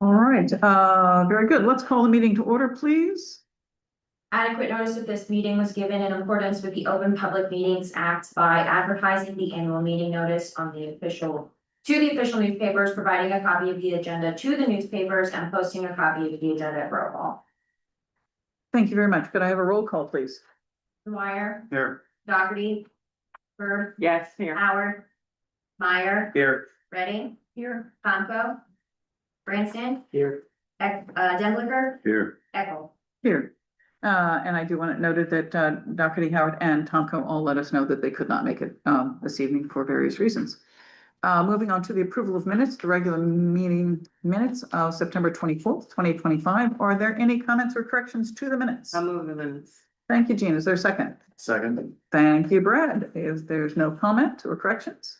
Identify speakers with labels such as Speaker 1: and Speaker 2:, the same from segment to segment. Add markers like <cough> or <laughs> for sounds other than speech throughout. Speaker 1: All right, uh, very good. Let's call the meeting to order, please.
Speaker 2: Adequate notice of this meeting was given in accordance with the Open Public Meetings Act by advertising the annual meeting notice on the official. To the official newspapers, providing a copy of the agenda to the newspapers and posting a copy of the agenda at Borough Hall.
Speaker 1: Thank you very much. Could I have a roll call, please?
Speaker 2: Dwyer,
Speaker 3: Here.
Speaker 2: Dougherty, Bird,
Speaker 4: Yes, here.
Speaker 2: Howard, Meyer,
Speaker 3: Here.
Speaker 2: Redding. Here. Conco, Branson,
Speaker 4: Here.
Speaker 2: Eck, uh, Denblinger,
Speaker 3: Here.
Speaker 2: Eckel.
Speaker 1: Here. Uh, and I do want it noted that, uh, Doherty Howard and Tomko all let us know that they could not make it, um, this evening for various reasons. Uh, moving on to the approval of minutes, the regular meeting minutes of September twenty-fourth, twenty twenty-five. Are there any comments or corrections to the minutes?
Speaker 4: I'll move the minutes.
Speaker 1: Thank you, Jean. Is there a second?
Speaker 3: Second.
Speaker 1: Thank you, Brad. Is there's no comment or corrections?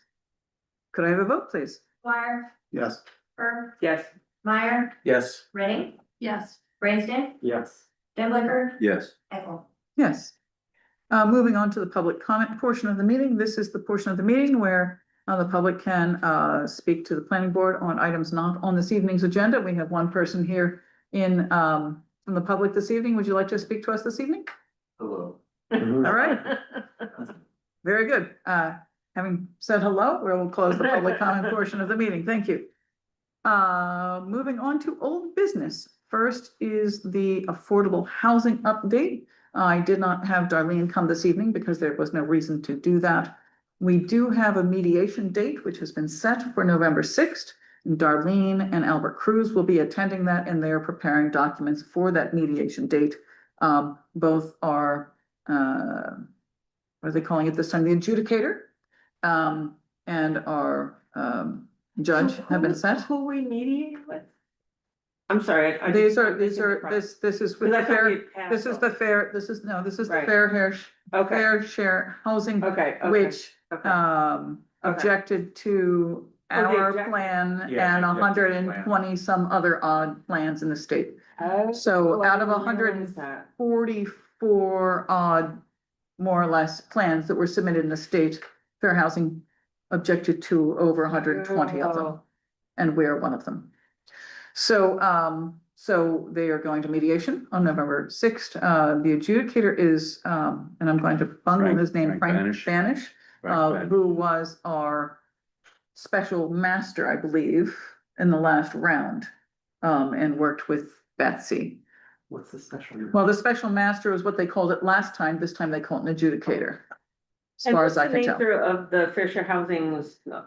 Speaker 1: Could I have a vote, please?
Speaker 2: Dwyer,
Speaker 3: Yes.
Speaker 2: Bird,
Speaker 4: Yes.
Speaker 2: Meyer,
Speaker 3: Yes.
Speaker 2: Redding,
Speaker 4: Yes.
Speaker 2: Branson,
Speaker 3: Yes.
Speaker 2: Denblinger,
Speaker 3: Yes.
Speaker 2: Eckel.
Speaker 1: Yes. Uh, moving on to the public comment portion of the meeting, this is the portion of the meeting where uh, the public can, uh, speak to the planning board on items not on this evening's agenda. We have one person here in, um, from the public this evening. Would you like to speak to us this evening?
Speaker 3: Hello.
Speaker 5: Mm-hmm.
Speaker 3: <laughs>
Speaker 1: All
Speaker 4: <laughs>
Speaker 1: right, very good. Uh, having said hello, we'll close the public comment portion of the meeting. Thank you. Uh, moving on to old business. First is the affordable housing update. I did not have Darlene come this evening because there was no reason to do that. We do have a mediation date, which has been set for November sixth. Darlene and Albert Cruz will be attending that and they are preparing documents for that mediation date. Um, both are, uh, what are they calling it this time? The adjudicator, um, and our, um, judge have been set.
Speaker 4: Who we mediate with? I'm sorry. I- I
Speaker 1: These
Speaker 4: just-
Speaker 1: are, these are, this, this is with
Speaker 4: Because I
Speaker 1: the
Speaker 4: thought we
Speaker 1: fair,
Speaker 4: had passed
Speaker 1: this is the
Speaker 4: all-
Speaker 1: fair, this is, no, this is the
Speaker 4: Right.
Speaker 1: fair hair,
Speaker 4: Okay,
Speaker 1: fair share housing,
Speaker 4: okay, okay.
Speaker 1: which,
Speaker 4: okay.
Speaker 1: um,
Speaker 4: Okay.
Speaker 1: objected to
Speaker 4: Oh, they
Speaker 1: our
Speaker 4: objected.
Speaker 1: plan
Speaker 3: Yeah,
Speaker 1: and
Speaker 3: they objected to the
Speaker 1: hundred and twenty some other odd plans in the state.
Speaker 4: Oh,
Speaker 1: So
Speaker 4: I
Speaker 1: out of
Speaker 4: didn't
Speaker 1: hundred
Speaker 4: realize
Speaker 1: and
Speaker 4: that.
Speaker 1: forty-four odd, more or less, plans that were submitted in the state, fair housing objected to over hundred and twenty of them
Speaker 4: Oh.
Speaker 1: and we're one of them. So, um, so they are going to mediation on November sixth. Uh, the adjudicator is, um, and I'm going to bungle
Speaker 3: Frank-
Speaker 1: his name,
Speaker 3: Frank
Speaker 1: Frank
Speaker 3: Banish.
Speaker 1: Banish,
Speaker 4: Oh.
Speaker 1: uh, who was our special master, I believe, in the last round, um, and worked with Betsy.
Speaker 3: What's the special?
Speaker 1: Well, the special master is what they called it last time. This time they call it an adjudicator. As
Speaker 4: And
Speaker 1: far
Speaker 4: what's
Speaker 1: as I
Speaker 4: the
Speaker 1: can tell.
Speaker 4: nature Of the fair share housing's uh,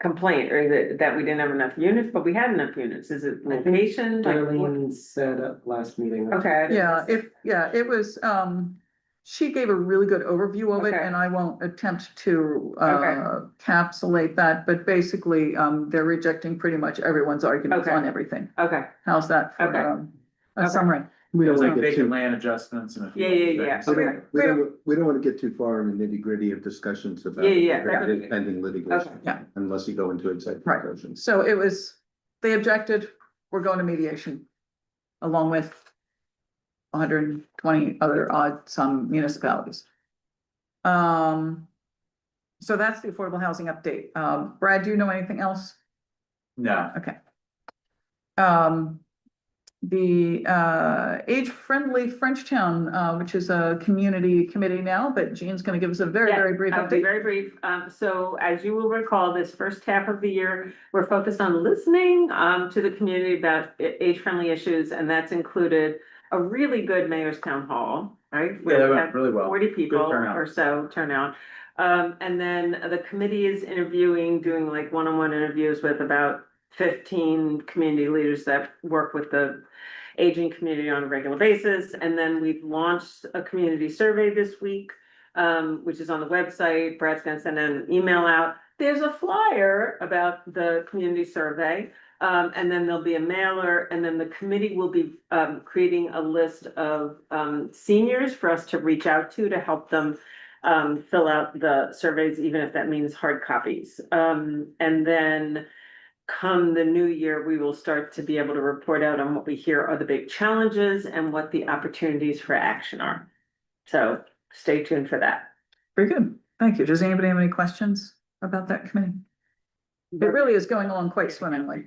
Speaker 4: complaint, or is it that we didn't have enough units, but we had enough units, is it location? like, what-
Speaker 5: Darlene said at last meeting.
Speaker 4: Okay. I didn't-
Speaker 1: Yeah, if, yeah, it was, um, she gave a really good overview of it
Speaker 4: Okay.
Speaker 1: and I won't attempt to, uh,
Speaker 4: Okay.
Speaker 1: capsulate that, but basically, um, they're rejecting pretty much everyone's arguments
Speaker 4: Okay.
Speaker 1: on everything.
Speaker 4: Okay,
Speaker 1: How's that for,
Speaker 4: Okay.
Speaker 1: um, a
Speaker 4: Okay.
Speaker 1: summary?
Speaker 5: We don't
Speaker 1: like
Speaker 5: wanna get
Speaker 3: vacant
Speaker 5: too,
Speaker 3: land adjustments and. a few
Speaker 4: Yeah, yeah,
Speaker 3: other
Speaker 4: yeah.
Speaker 3: things.
Speaker 5: we
Speaker 1: Okay.
Speaker 5: don't, we don't, we don't wanna get too far in the nitty gritty of discussions about.
Speaker 4: Yeah, yeah, that would be-
Speaker 5: Pending litigation.
Speaker 4: Okay.
Speaker 1: Yeah.
Speaker 5: Unless you go into executive
Speaker 1: Right.
Speaker 5: session.
Speaker 1: So it was, they objected, we're going to mediation along with hundred and twenty other odd some municipalities. Um, so that's the affordable housing update. Um, Brad, do you know anything else?
Speaker 3: No.
Speaker 1: Okay. Um, the, uh, age-friendly Frenchtown, uh, which is a community committee now, but Jean's gonna give us a very,
Speaker 4: Yeah,
Speaker 1: very brief
Speaker 4: I'll be
Speaker 1: update.
Speaker 4: very brief. Um, so as you will recall, this first half of the year, we're focused on listening um to the community about age friendly issues, and that's included a really good mayor's town hall, right?
Speaker 3: Yeah,
Speaker 4: where
Speaker 3: that
Speaker 4: we
Speaker 3: went
Speaker 4: had
Speaker 3: really well.
Speaker 4: Forty people
Speaker 3: turnout.
Speaker 4: or so turnout. Um, and then the committee is interviewing, doing like one-on-one interviews with about fifteen community leaders that work with the aging community on a regular basis. And then we've launched a community survey this week, um, which is on the website. Brad's gonna send an email out. There's a flyer about the community survey. Um, and then there'll be a mailer, and then the committee will be, um, creating a list of, um, seniors for us to reach out to to help them um, fill out the surveys, even if that means hard copies. Um, and then come the new year, we will start to be able to report out on what we hear are the big challenges and what the opportunities for action are. So stay tuned for that.
Speaker 1: Very good. Thank you. Does anybody have any questions about that committee? It really is going along quite swimmingly.